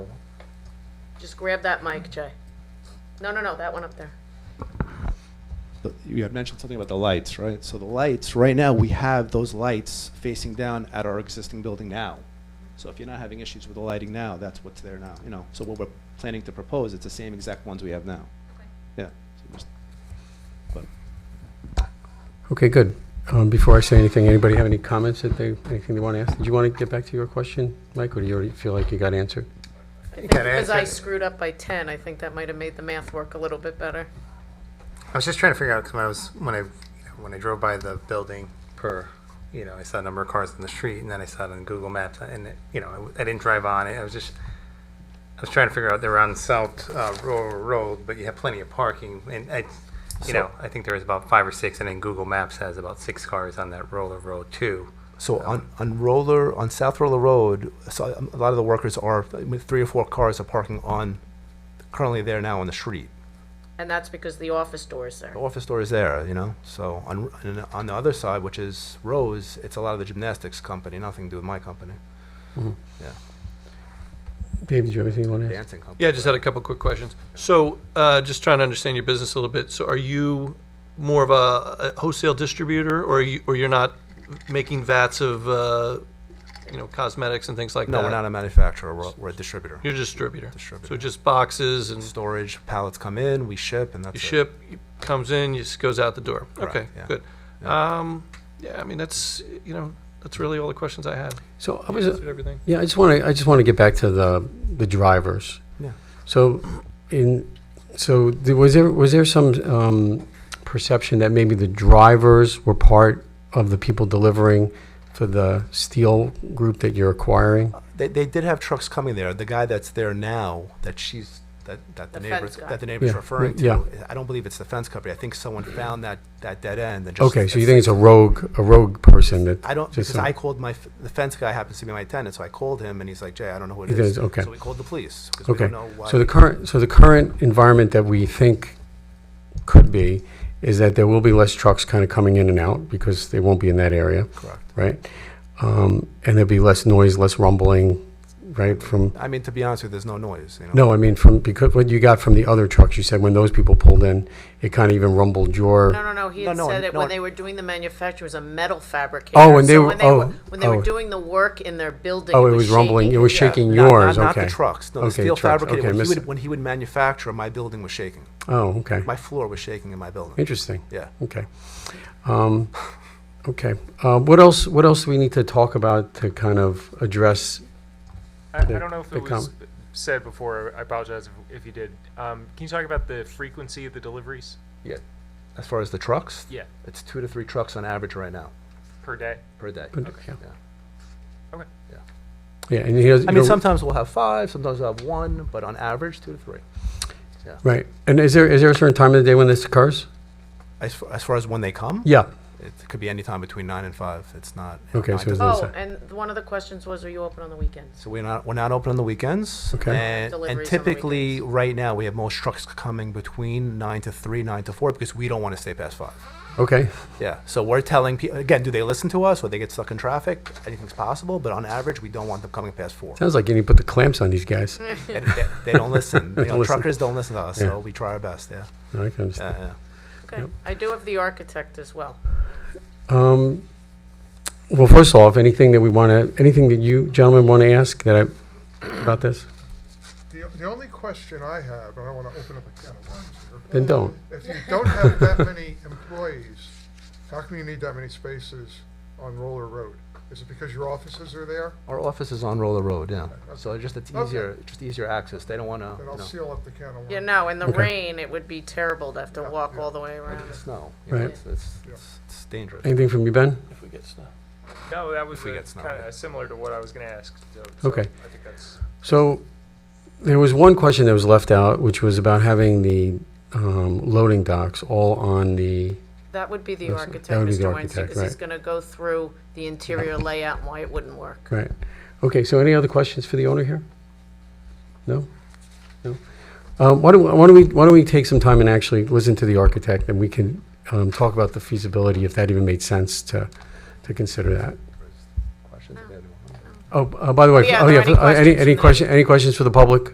Just grab that mic, Jay. No, no, no, that one up there. The- You had mentioned something about the lights, right? So the lights, right now, we have those lights facing down at our existing building now. So if you're not having issues with the lighting now, that's what's there now, you know? So what we're planning to propose, it's the same exact ones we have now. Yeah. So just- But Okay, good. Um, Before I say anything, anybody have any comments that they, anything they want to ask? Did you want to get back to your question, Mike, or do you already feel like you got answered? I think gotta because answer I it. screwed up by 10, I think that might have made the math work a little bit better. I was just trying to figure out because when I was when I when I drove by the building per you know I saw a number of cars on the street and then I saw it on Google Maps and it, you know I w- I, didn't drive on it I was just I was trying to figure out they're on South uh, Royal Road but you have plenty of parking and I you know I think there was about five or six and then Google Maps has about six cars on that Roller Road too So on, on roller on South Roller Road, so um, a lot of the workers are with three or four cars are parking on currently there now on the street. And that's because the office door is there. The office door is there, you know. So on and on the other side, which is Rose, it's a lot of the gymnastics company, nothing to do with my company, Dave, did you have anything you want to ask? dancing company. Yeah, I just had a couple quick questions. So, uh, just trying to understand your business a little bit. So, are you more of a, a wholesale distributor, or are you, or you're not making vats of, uh, you know, cosmetics and things like No, that? we're not a manufacturer. We're, we're a distributor. You're a distributor. Distributor. So just boxes and Storage pallets come in, we ship, and that's you it. ship comes in, just goes out the door. okay, yeah. good. Um, yeah, I mean that's you know that's really all the questions I had. So I was, Answered everything. yeah, I just want to, I just want to get back to the, the drivers. Yeah. So in, so there- was there, was there some um, perception that maybe the drivers were part of the people delivering for the steel group that you're acquiring? They, they did have trucks coming there. The guy that's there now, that she's that, that the, The fence neighbors guy. that the neighbors Yeah, referring to. yeah. I don't believe it's the fence company. I think someone found that that dead end and just. Okay, so you think it's a rogue, a rogue person that? I don't just because some- I called my f- the fence guy happens to be my tenant, so I called him and he's like, Jay, I don't know who it He is. does, okay. So we called the police because we Okay, don't know why. so the current, so the current environment that we think could be is that there will be less trucks kind of coming in and out because they won't be in that area, correct. right? Um, and there'll be less noise, less rumbling, right, from, I mean, to be honest with you, there's no noise. You know? no, I mean, from, because what you got from the other trucks, you said when those people pulled in, it kind of even rumbled No, your, no, no, he No, had no, said it no. when they were doing the manufacture, it was a metal fabricator. Oh, when they So were- oh, When they were oh. doing the work in their building. oh, it was rumbling, it was shaking. shaking Not- yours, not, not okay. the trucks. No, the Okay, steel trucks, fabricator. okay, when, he miss- would, when he would manufacture, my building was shaking. Oh, okay, My floor was shaking in my building. interesting. Yeah. Okay. Um, Okay. Uh, What else, what else do we need to talk about to kind of address? I, I the- don't know if the it was com- said before. I apologize if, if you did. Um, can you talk about the frequency of the deliveries? Yeah. As far as the trucks, Yeah, it's two to three trucks on average right now per day. per day. Yeah, Okay. Yeah, and he doesn't. I mean, you don't- sometimes we'll have five, sometimes we'll have one, but on average, two to three. Right, and is there, is there a certain time of the day when this occurs? As far, as far as when they come, Yeah, it could be any time between nine and five. It's not. you know, Okay, nine so to it's not- Oh, and one of the questions was, are you open on the weekends? So we're not we're not open on the weekends. Okay. And, and Deliveries on the typically, right now, we have most trucks coming between nine to three, nine to four, because we don't want to stay past five. okay, Yeah. So we're telling people again. Do they listen to us, or they get stuck in traffic? Anything's possible, but on average, we don't want them coming past four. sounds like you need to put the clamps on these guys. And they, they don't listen. You know, Don't listen. Truckers don't listen to us, Yeah. so we try our best. Yeah. Uh, I can understand. yeah, Okay, I do have the architect as well. Um, Well, first off, anything that we want to, anything that you gentlemen want to ask that I, about this? The, the only question I have, and I want to open up a can of worms here. Then don't. If you don't have that many employees, how come you need that many spaces on Roller Road? Is it because your offices are there? Our office is on Roller Road. Yeah. So just it's Okay. easier, just easier access. They don't want to. Then I'll seal up the can of worms. Yeah, no, in the Okay. rain, it would be terrible to have to Yeah, walk yeah. all the way around. Snow. you know, Right. It's, it's- Yeah. dangerous. Anything from you, Ben? If we get stuff. No, that was If we get snow. kind of similar to what I was going to ask. So, so Okay. I think that's So there was one question that was left out, which was about having the um, loading docks all on the, That would be the That's- architect, that would be the Mr. Weinstein, architect, because he's right. gonna go through the interior layout and why it wouldn't work. right. Okay, so any other questions for the owner here? No? No? Um, Why don't, why don't we, why don't we take some time and actually listen to the architect, and we can um, talk about the feasibility, if that even made sense to, to consider that. Questions? No. Oh, uh, by the way, Yeah, oh, are there yeah, any uh, questions from any, any the- question, any questions for the public?